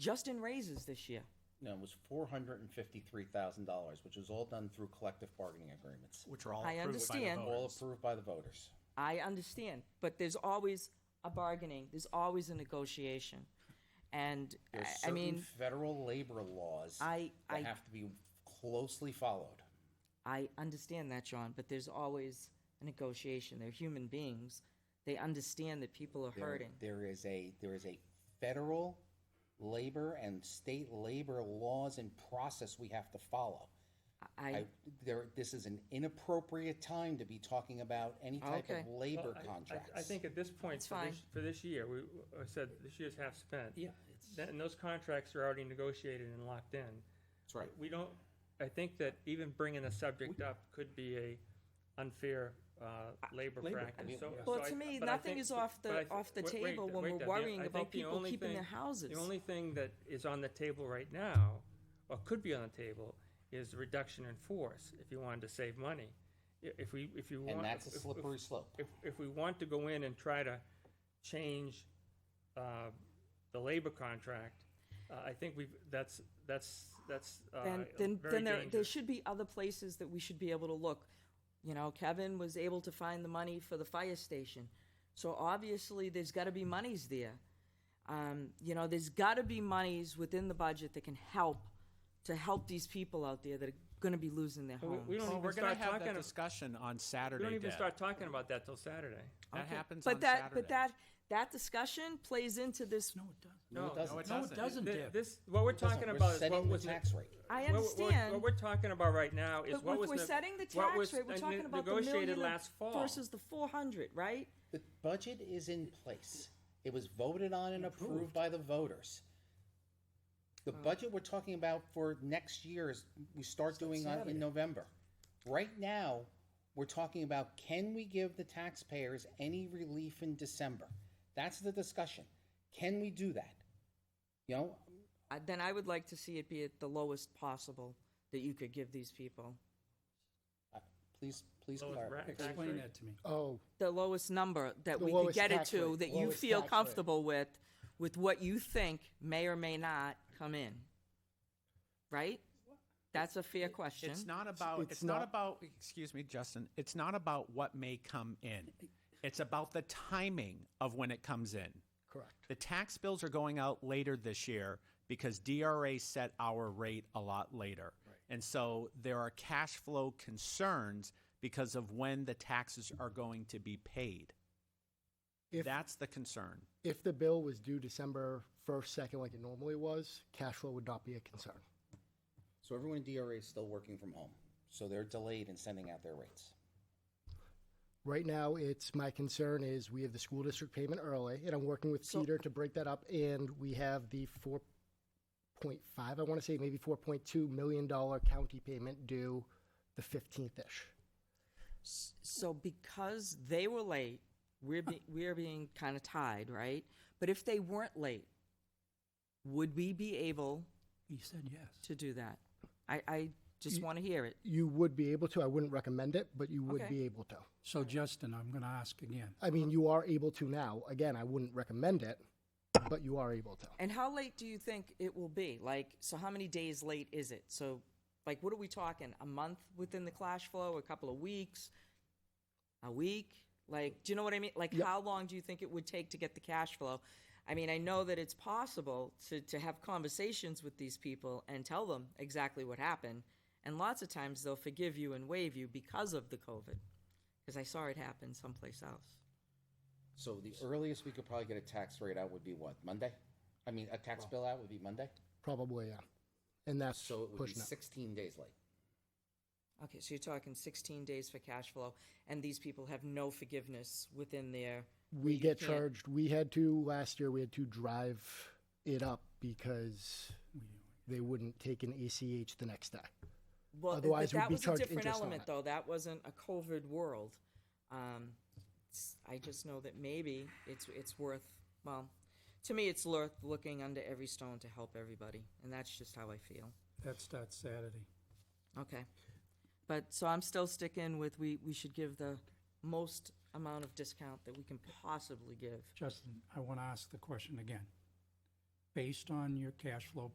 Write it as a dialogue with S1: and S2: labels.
S1: just in raises this year.
S2: No, it was four hundred and fifty-three thousand dollars, which was all done through collective bargaining agreements,
S3: which are all
S1: I
S3: approved by the
S1: understand.
S2: all
S3: voters.
S2: approved by the voters.
S1: I understand, but there's always a bargaining, there's always a negotiation. And,
S2: There's
S1: I- I
S2: certain
S1: mean,
S2: federal labor laws
S1: I-
S2: that
S1: I-
S2: have to be closely followed.
S1: I understand that, John, but there's always a negotiation. They're human beings. They understand that people are
S2: There-
S1: hurting.
S2: There is a there is a federal labor and state labor laws and process we have to follow.
S1: I,
S2: I, there, this is an inappropriate time to be talking about any type
S1: Okay.
S2: of labor
S4: Well, I- I-
S2: contracts.
S4: I think at this point,
S1: It's
S4: for this,
S1: fine.
S4: for this year, we I said this year's half spent.
S2: Yeah, it's-
S4: That- And those contracts are already negotiated and locked in.
S2: That's right.
S4: We don't, I think that even bringing the subject up could be a unfair uh, labor
S2: labor, I
S4: practice.
S2: mean,
S4: So-
S2: yeah.
S4: so
S1: Well,
S4: I-
S1: to me,
S4: but I
S1: nothing
S4: think-
S1: is off the-
S4: but I thi-
S1: off the
S4: wait- wait,
S1: table when
S4: wait,
S1: we're
S4: Deb,
S1: worrying
S4: I
S1: about
S4: think the
S1: people
S4: only
S1: keeping their
S4: thing-
S1: houses.
S4: The only thing that is on the table right now, or could be on the table, is reduction in force, if you wanted to save money. I- If we, if you want.
S2: And that's a
S4: if- if-
S2: slippery slope.
S4: if, if we want to go in and try to change uh, the labor contract, uh, I think we've, that's, that's, that's uh,
S1: then, then,
S4: very
S1: then there, there
S4: dangerous.
S1: should be other places that we should be able to look. You know, Kevin was able to find the money for the fire station. So obviously, there's got to be monies there. Um, you know, there's got to be monies within the budget that can help to help these people out there that are going to be losing their
S4: we-
S1: homes.
S4: we don't
S3: Well,
S4: even
S3: we're gonna
S4: start
S3: have that
S4: talking-
S3: discussion on
S4: We
S3: Saturday,
S4: don't even
S3: Deb.
S4: start talking about that till Saturday.
S3: That happens
S1: but
S3: on
S1: that,
S3: Saturday.
S1: but that, that discussion plays into this.
S5: No, it doesn't.
S2: No, it doesn't.
S3: No, it
S5: No, it doesn't,
S3: doesn't.
S4: Th-
S5: Deb.
S4: This, what we're talking
S2: We're
S4: about is
S2: setting
S4: what
S2: the
S4: was. ne-
S2: tax rate.
S1: I
S4: what- what-
S1: understand.
S4: What we're talking about right now is
S1: But
S4: what
S1: if
S4: was.
S1: we're
S4: ne-
S1: setting the
S4: what
S1: tax
S4: was uh,
S1: rate, we're
S4: ne-
S1: talking about the
S4: Negotiated
S1: million
S4: last fall.
S1: versus the four hundred, right?
S2: The budget is in place. It was voted on and approved by the voters. The budget we're talking about for next year is, we start doing on- in November. Right now, we're talking about, can we give the taxpayers any relief in December? That's the discussion. Can we do that? You know,
S1: Uh, then I would like to see it be at the lowest possible that you could give these people.
S2: uh, please, please
S4: Lowest
S2: clarify.
S4: rack- tax
S5: Explain
S4: rate.
S5: that to me.
S6: Oh,
S1: The lowest number that
S6: The
S1: we could
S6: lowest
S1: get it
S6: tax
S1: to
S6: rate.
S1: that you
S6: Lowest
S1: feel
S6: tax rate.
S1: comfortable with, with what you think may or may not come in. Right? That's a fair question.
S3: It's not about,
S6: It's
S3: it's not
S6: not-
S3: about, excuse me, Justin, it's not about what may come in. It's about the timing of when it comes in.
S6: correct.
S3: The tax bills are going out later this year because DRA set our rate a lot later. And so there are cash flow concerns because of when the taxes are going to be paid.
S6: If-
S3: That's the concern.
S6: If the bill was due December 1st, 2nd, like it normally was, cash flow would not be a concern.
S2: So everyone in DRA is still working from home, so they're delayed in sending out their rates.
S6: Right now, it's, my concern is we have the school district payment early, and I'm working with
S1: So-
S6: Peter to break that up, and we have the 4.5, I want to say maybe 4.2 million dollar county payment due the 15th-ish.
S1: So because they were late, we're be, we're being kind of tied, right? But if they weren't late, would we be able
S5: You said yes.
S1: to do that? I, I just want to hear it.
S6: You would be able to, I wouldn't recommend it, but you would
S1: Okay.
S6: be able to.
S5: So Justin, I'm going to ask again.
S6: I mean, you are able to now. Again, I wouldn't recommend it, but you are able to.
S1: And how late do you think it will be? Like, so how many days late is it? So, like, what are we talking? A month within the cash flow? A couple of weeks? A week? Like, do you know what I mean? Like,
S6: Yep.
S1: how long do you think it would take to get the cash flow? I mean, I know that it's possible to, to have conversations with these people and tell them exactly what happened. And lots of times they'll forgive you and waive you because of the COVID. Because I saw it happen someplace else.
S2: So the earliest we could probably get a tax rate out would be what, Monday? I mean, a tax bill out would be Monday?
S6: Probably, yeah. And that's
S2: So it would be
S6: pushing it.
S2: sixteen days late.
S1: Okay, so you're talking 16 days for cash flow, and these people have no forgiveness within their.
S6: we
S1: you
S6: get
S1: can't-
S6: charged. We had to last year. We had to drive it up because they wouldn't take an ACH the next day.
S1: Well,
S6: otherwise
S1: but
S6: we'd
S1: that
S6: be
S1: was a
S6: charged
S1: different
S6: interest on
S1: element,
S6: it.
S1: though. That wasn't a COVID world. Um, it's- I just know that maybe it's it's worth. Well, to me, it's worth looking under every stone to help everybody, and that's just how I feel.
S5: That starts Saturday.
S1: Okay, but so I'm still sticking with we we should give the most amount of discount that we can possibly give.
S5: Justin, I want to ask the question again. based on your cash flow